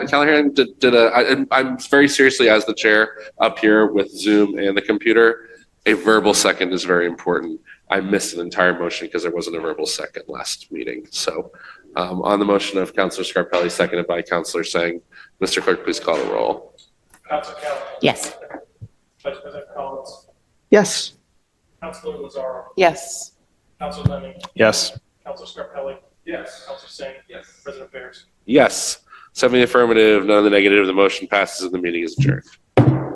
Callahan did, did a, I, I'm- I'm very seriously as the chair up here with Zoom and the computer, a verbal second is very important. I missed an entire motion because there wasn't a verbal second last meeting. So um, on the motion of Counselor Scarpelli, seconded by Counselor Sang, Mr. Clerk, please call the roll. Council Callahan. Yes. Vice President Collins. Yes. Councilor Lazaro. Yes. Council Lemming. Yes. Council Scarpelli. Yes. Council Singh. Yes. President Barris. Yes. Seven in the affirmative, none in the negative. The motion passes and the meeting is adjourned.